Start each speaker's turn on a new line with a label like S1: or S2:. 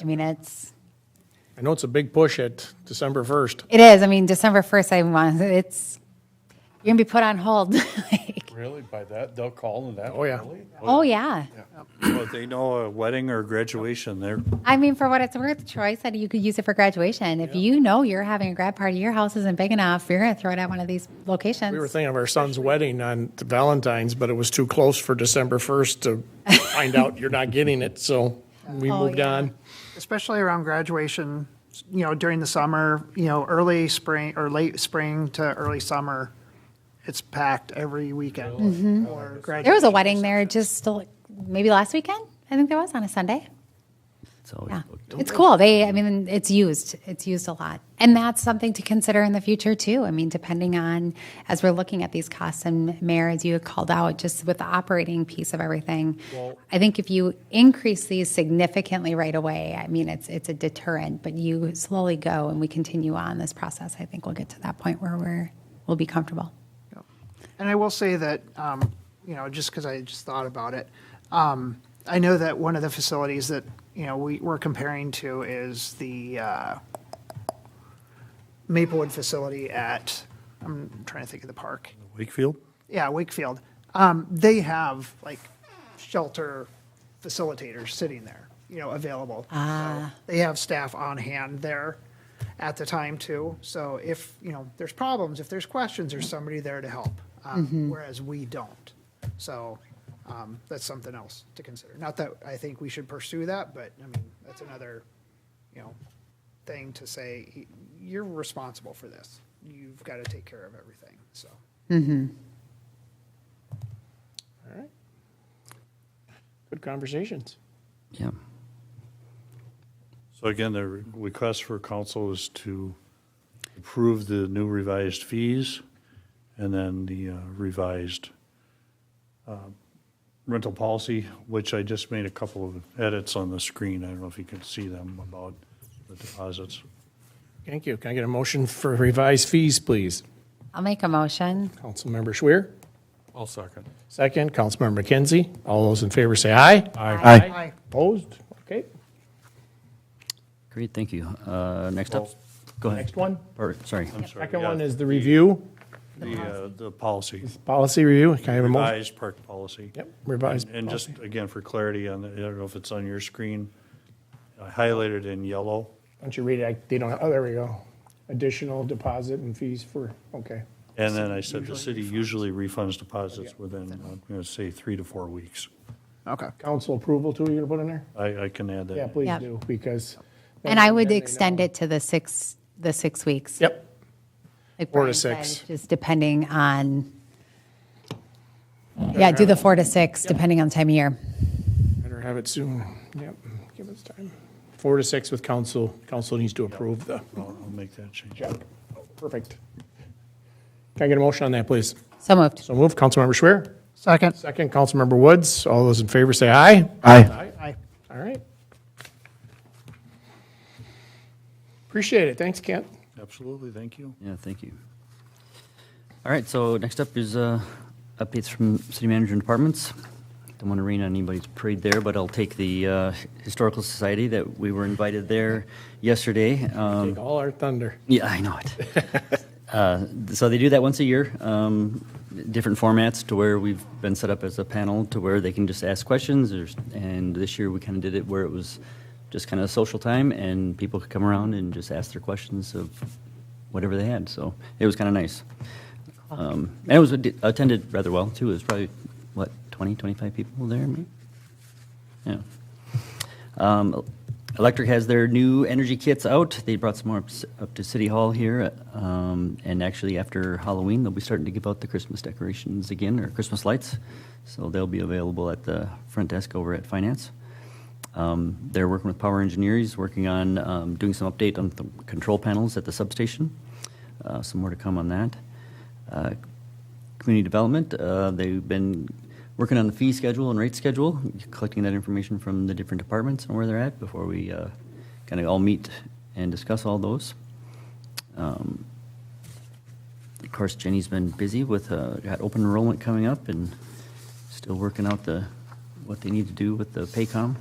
S1: I mean, it's,
S2: I know it's a big push at December 1st.
S1: it is. I mean, December 1st, I want, it's, you're going to be put on hold. Like,
S3: Really? By that, they'll call and that?
S2: Oh, yeah.
S3: early?
S1: Oh, yeah.
S3: Well, if they know a wedding or graduation, they're,
S1: I mean, for what it's worth, Troy said you could use it for graduation. If you know you're having a grad party, your house isn't big enough, you're going to throw it at one of these locations.
S2: We were thinking of our son's wedding on Valentine's, but it was too close for December 1st to find out you're not getting it, so we
S1: Oh,
S2: moved
S1: yeah.
S2: on.
S4: especially around graduation, you know, during the summer, you know, early spring or late spring to early summer, it's packed every weekend.
S1: there was
S4: Or
S1: a
S4: graduation.
S1: wedding there just like, maybe last weekend. I think there was on a Sunday.
S5: It's always
S1: Yeah.
S5: booked.
S1: It's cool. They, I mean, it's used. It's used a lot. And that's something to consider in the future, too. I mean, depending on, as we're looking at these costs, and Mayor, as you had called out, just with the operating piece of everything, I think if you increase these significantly right away, I mean, it's, it's a deterrent, but you slowly go and we continue on this process, I think we'll get to that point where we're, we'll be comfortable.
S4: And I will say that, um, you know, just because I just thought about it, um, I know that one of the facilities that, you know, we, we're comparing to is the uh, Maplewood facility at, I'm trying to think of the park.
S3: Wakefield?
S4: yeah, Wakefield, um, they have like shelter facilitators sitting there, you know, available. Ah. They have staff on hand there at the time too. So if, you know, there's problems, if there's questions, there's somebody there to help. Um, whereas we don't. So, um, that's something else to consider. Not that I think we should pursue that, but I mean, that's another, you know, thing to say, you're responsible for this. You've got to take care of everything, so.
S2: Good conversations.
S5: Yeah.
S3: So again, the re- request for council is to approve the new revised fees and then the uh, revised uh, rental policy, which I just made a couple of edits on the screen. I don't know if you can see them about the deposits.
S2: Thank you. Can I get a motion for revised fees, please?
S1: I'll make a motion.
S2: Councilmember Schwer,
S3: I'll second.
S2: second. Councilmember McKenzie. All those in favor say aye.
S5: Aye.
S4: Aye.
S2: Opposed? Okay.
S5: Great, thank you. Uh, Next up, go ahead.
S2: Next one.
S5: Or, sorry.
S2: Second one is the review,
S3: The, uh, the policy,
S2: policy review. Can I have a motion?
S3: revised park policy.
S2: Yep, revised.
S3: And just,
S2: policy.
S3: again, for clarity on, the I don't know if it's on your screen, I highlighted in yellow.
S2: Why don't you read it? I- They don't, oh, there we go. Additional deposit and fees for, okay.
S3: And then I said the city usually refunds deposits within, I'm going to say, three to four weeks.
S4: Okay.
S2: Council approval too, you're gonna put in there?
S3: I, I can add that.
S2: Yeah, please
S1: Yep.
S2: do, because.
S1: And I would
S2: then they
S1: extend
S2: know.
S1: it to the six, the six weeks.
S2: Yep.
S1: Like
S2: Four to
S1: Brian said,
S2: six.
S1: Just depending on, yeah, do the four to six, depending on the time of year.
S2: Better have it soon. Yep, give us time. Four to six with council. Council needs to approve the
S3: I'll I'll make that change.
S2: check. Perfect. Can I get a motion on that, please?
S1: So moved.
S2: So move, Councilmember Schwer.
S4: Second.
S2: Second, Councilmember Woods. All those in favor say aye.
S5: Aye.
S4: Aye.
S2: All right. Appreciate it. Thanks, Kent.
S3: Absolutely, thank you.
S5: Yeah, thank you. All right, so next up is uh, updates from city manager and departments. Don't want to rain on anybody's parade there, but I'll take the uh, Historical Society that we were invited there yesterday. Um,
S2: Take all our thunder.
S5: Yeah, I know it. uh, so they do that once a year, um, different formats to where we've been set up as a panel to where they can just ask questions. There's, and this year we kind of did it where it was just kind of social time and people could come around and just ask their questions of whatever they had. So it was kind of nice. Um, and it was ad- attended rather well too. It was probably, what, 20, 25 people there, maybe? Yeah. Um, Electric has their new energy kits out. They brought some more up, up to City Hall here. Um, and actually, after Halloween, they'll be starting to give out the Christmas decorations again or Christmas lights. So they'll be available at the front desk over at Finance. Um, they're working with Power Engineers, working on um, doing some update on the control panels at the substation. Uh, some more to come on that. Uh, community development, uh, they've been working on the fee schedule and rate schedule, collecting that information from the different departments and where they're at before we uh, kind of all meet and discuss all those. Um, of course, Jenny's been busy with uh, got open enrollment coming up and still working out the what they need to do with the Paycom